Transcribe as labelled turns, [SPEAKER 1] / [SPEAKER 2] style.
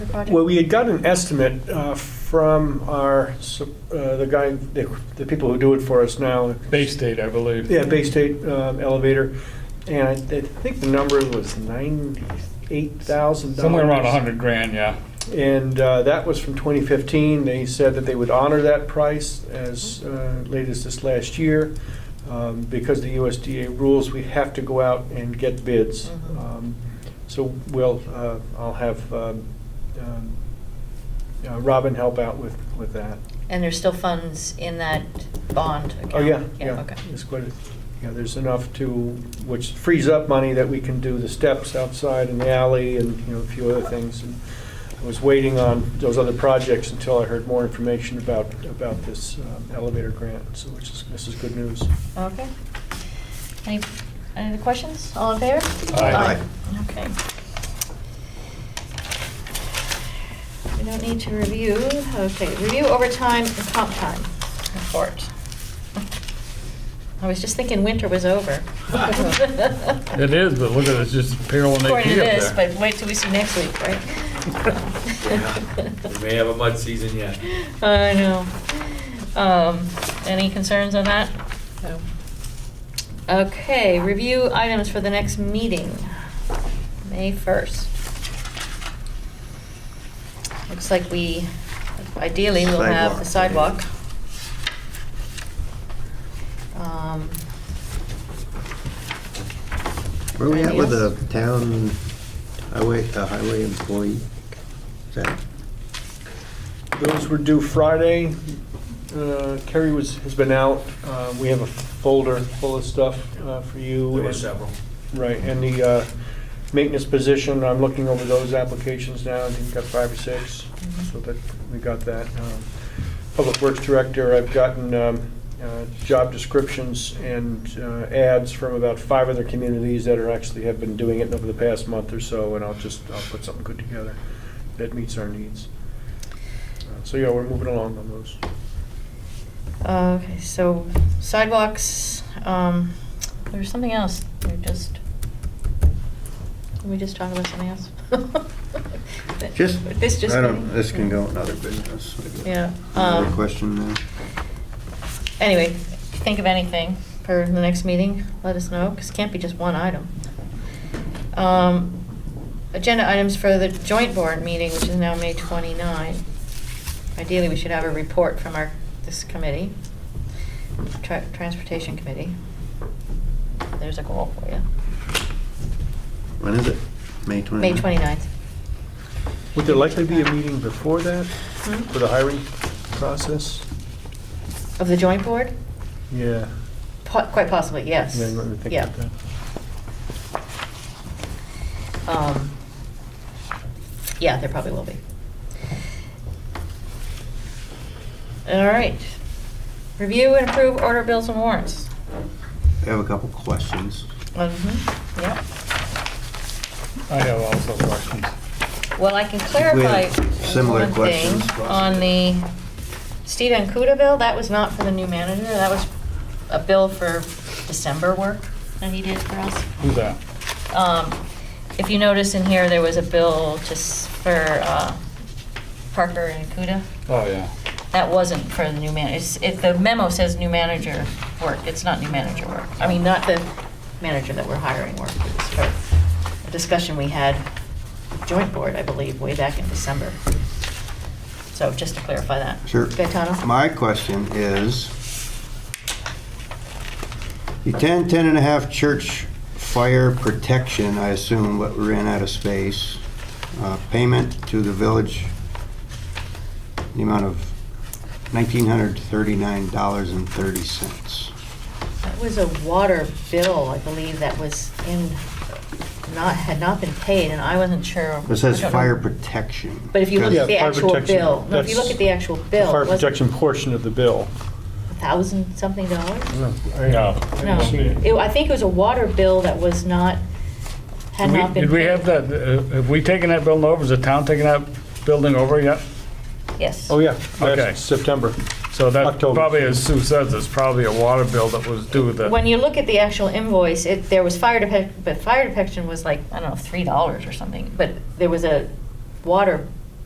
[SPEAKER 1] the project?
[SPEAKER 2] Well, we had got an estimate uh, from our, su- uh, the guy, the the people who do it for us now.
[SPEAKER 3] Bay State, I believe.
[SPEAKER 2] Yeah, Bay State um, Elevator, and I I think the number was $98,000.
[SPEAKER 3] Somewhere around a hundred grand, yeah.
[SPEAKER 2] And uh, that was from 2015. They said that they would honor that price as uh, late as this last year. Um, Because the USDA rules, we have to go out and get bids.
[SPEAKER 1] Mhm.
[SPEAKER 2] Um, So we'll, uh, I'll have um, um, uh, Robin help out with, with that.
[SPEAKER 1] And there's still funds in that bond account?
[SPEAKER 2] Oh, yeah, yeah.
[SPEAKER 1] okay.
[SPEAKER 2] It's quite, a- yeah, there's enough to, which frees up money that we can do the steps outside in the alley and, you know, a few other things. And I was waiting on those other projects until I heard more information about, about this um, elevator grant, so which is, this is good news.
[SPEAKER 1] Okay. Any, any other questions? All in favor?
[SPEAKER 3] Aye.
[SPEAKER 1] Okay. We don't need to review, okay, review overtime and comp time report. I was just thinking winter was over.
[SPEAKER 3] It is, but look at it, it's just parallel
[SPEAKER 1] According to
[SPEAKER 3] AP
[SPEAKER 1] this,
[SPEAKER 3] up
[SPEAKER 1] but
[SPEAKER 3] there.
[SPEAKER 1] wait till we see next week, right?
[SPEAKER 4] We may have a mud season yet.
[SPEAKER 1] I know. Um, any concerns on that? No. Okay, review items for the next meeting, May 1st. Looks like we, ideally, we'll have the sidewalk.
[SPEAKER 5] Sidewalk.
[SPEAKER 1] Um,
[SPEAKER 5] Where we at with the
[SPEAKER 1] Anything
[SPEAKER 5] town highway, uh, highway employee? Is that-
[SPEAKER 2] Those were due Friday. Uh, Kerry was, has been out. Uh, We have a folder full of stuff uh, for you.
[SPEAKER 4] There were
[SPEAKER 2] and-
[SPEAKER 4] several.
[SPEAKER 2] Right, and the uh, maintenance position, I'm looking over those applications now, I think I've got five or six, so that, we got that. Um, Public Works Director, I've gotten um, uh, job descriptions and uh, ads from about five other communities that are actually have been doing it over the past month or so, and I'll just, I'll put something good together that meets our needs. Uh, So, yeah, we're moving along on those.
[SPEAKER 1] Uh, Okay, so sidewalks, um, there's something else, we just, can we just talk about something else?
[SPEAKER 5] Just,
[SPEAKER 1] This just.
[SPEAKER 5] I don't, this can go in other business.
[SPEAKER 1] Yeah,
[SPEAKER 5] Another
[SPEAKER 1] um,
[SPEAKER 5] question there.
[SPEAKER 1] Anyway, think of anything for the next meeting, let us know, because it can't be just one item. Um, Agenda items for the joint board meeting, which is now May 29. Ideally, we should have a report from our, this committee, tra- Transportation Committee. There's a goal for you.
[SPEAKER 5] When is it? May 29th?
[SPEAKER 2] Mm-hmm.
[SPEAKER 1] May 29th.
[SPEAKER 2] Would there likely be a meeting before that,
[SPEAKER 1] Hmm?
[SPEAKER 2] for the hiring process?
[SPEAKER 1] Of the joint board?
[SPEAKER 2] Yeah.
[SPEAKER 1] Po- Quite possibly, yes.
[SPEAKER 2] Yeah, let me think
[SPEAKER 1] Yeah.
[SPEAKER 2] about that.
[SPEAKER 1] Um, Yeah, there probably will be. All right. Review and approve order bills and warrants.
[SPEAKER 5] I have a couple questions.
[SPEAKER 1] Mm-hmm, yep.
[SPEAKER 3] I have also questions.
[SPEAKER 1] Well, I can clarify
[SPEAKER 5] similar
[SPEAKER 1] one thing
[SPEAKER 5] questions.
[SPEAKER 1] on the Steve Ancuda bill. That was not for the new manager. That was a bill for December work that he did for us.
[SPEAKER 3] Who's that?
[SPEAKER 1] Um, If you notice in here, there was a bill just for uh, Parker and Kuda.
[SPEAKER 3] Oh, yeah.
[SPEAKER 1] That wasn't for the new man, it's, it, the memo says new manager work, it's not new manager work. I mean, not the manager that we're hiring work, it's for a discussion we had, joint board, I believe, way back in December. So just to clarify that.
[SPEAKER 5] Sure.
[SPEAKER 1] Gaetano?
[SPEAKER 5] My question is, the 10, 10 and a half church fire protection, I assume, but we ran out of space, uh, payment to the village, the amount of $1,939.30.
[SPEAKER 1] That was a water bill, I believe, that was in, not, had not been paid, and I wasn't sure.
[SPEAKER 5] It says
[SPEAKER 1] I don't know.
[SPEAKER 5] fire protection.
[SPEAKER 1] But if you look
[SPEAKER 2] Yeah,
[SPEAKER 1] at the
[SPEAKER 2] fire
[SPEAKER 1] actual
[SPEAKER 2] protection.
[SPEAKER 1] bill, no, if you
[SPEAKER 2] That's
[SPEAKER 1] look at the actual bill,
[SPEAKER 2] Fire
[SPEAKER 1] it
[SPEAKER 2] protection
[SPEAKER 1] wasn't
[SPEAKER 2] portion of the bill.
[SPEAKER 1] a thousand something dollars?
[SPEAKER 3] No.
[SPEAKER 1] No, It- I think it was a water bill that was not, had not been.
[SPEAKER 3] Did we
[SPEAKER 1] paid.
[SPEAKER 3] have that, uh, have we taken that building over? Is the town taking that building over yet?
[SPEAKER 1] Yes.
[SPEAKER 2] Oh, yeah,
[SPEAKER 3] Okay.
[SPEAKER 2] last September.
[SPEAKER 3] So that
[SPEAKER 2] October.
[SPEAKER 3] probably, as Sue says, it's probably a water bill that was due the.
[SPEAKER 1] When you look at the actual invoice, it, there was fire detection, but fire detection was like, I don't know, three dollars or something, but there was a water